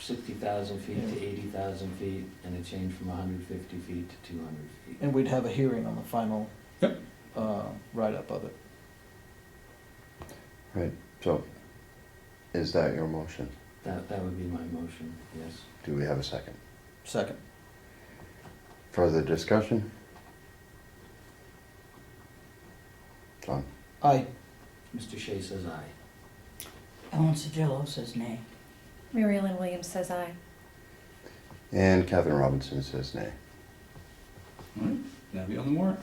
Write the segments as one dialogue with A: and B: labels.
A: sixty thousand feet to eighty thousand feet, and a change from hundred fifty feet to two hundred feet.
B: And we'd have a hearing on the final
C: Yep.
B: uh, write-up of it.
D: Right, so is that your motion?
A: That, that would be my motion, yes.
D: Do we have a second?
B: Second.
D: Further discussion? John?
B: Aye.
A: Mr. Shea says aye.
E: Ellen Sedillo says nay.
F: Mary Ellen Williams says aye.
D: And Kevin Robinson says nay.
C: All right, that'll be on the warrant.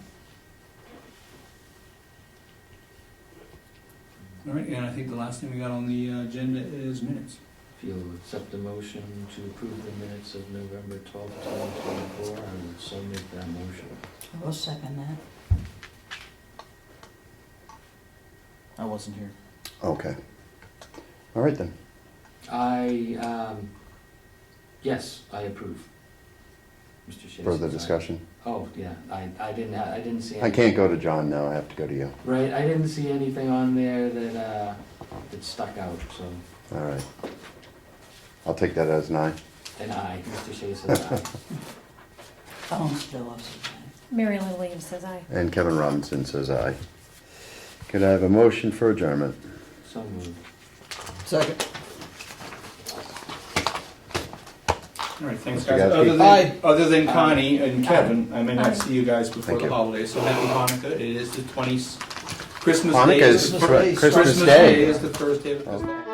C: All right, and I think the last thing we got on the uh, agenda is minutes.
A: If you'll accept the motion to approve the minutes of November twelfth, twenty twenty-four, I would so make that motion.
E: I will second that.
B: I wasn't here.
D: Okay. All right then.
A: I, um, yes, I approve. Mr. Shea.
D: Further
A: says aye.
D: discussion?
A: Oh, yeah, I, I didn't, ha- I didn't see.
D: I
A: any-
D: can't go to John now, I have to go to you.
A: Right, I didn't see anything on there that, uh, that stuck out, so,
D: All right. I'll take that as an aye.
A: and aye, Mr. Shea says aye.
E: Ellen Sedillo says nay.
F: Mary Ellen Williams says aye.
D: And Kevin Robinson says aye. Could I have a motion for adjournment?
A: So moved.
B: Second.
C: All right, thanks,
D: Mr.
C: guys.
D: Gasky.
C: Other
B: Aye.
C: than, other than Connie and Kevin, I may
F: Aye.
C: not see you guys before
D: Thank
C: the
D: you.
C: holidays, so happy Hanukkah. It is the 20th, Christmas Day.
D: Hanukkah is
B: Christmas Day.
D: Christmas Day. Oh.
C: is the first day of the festival.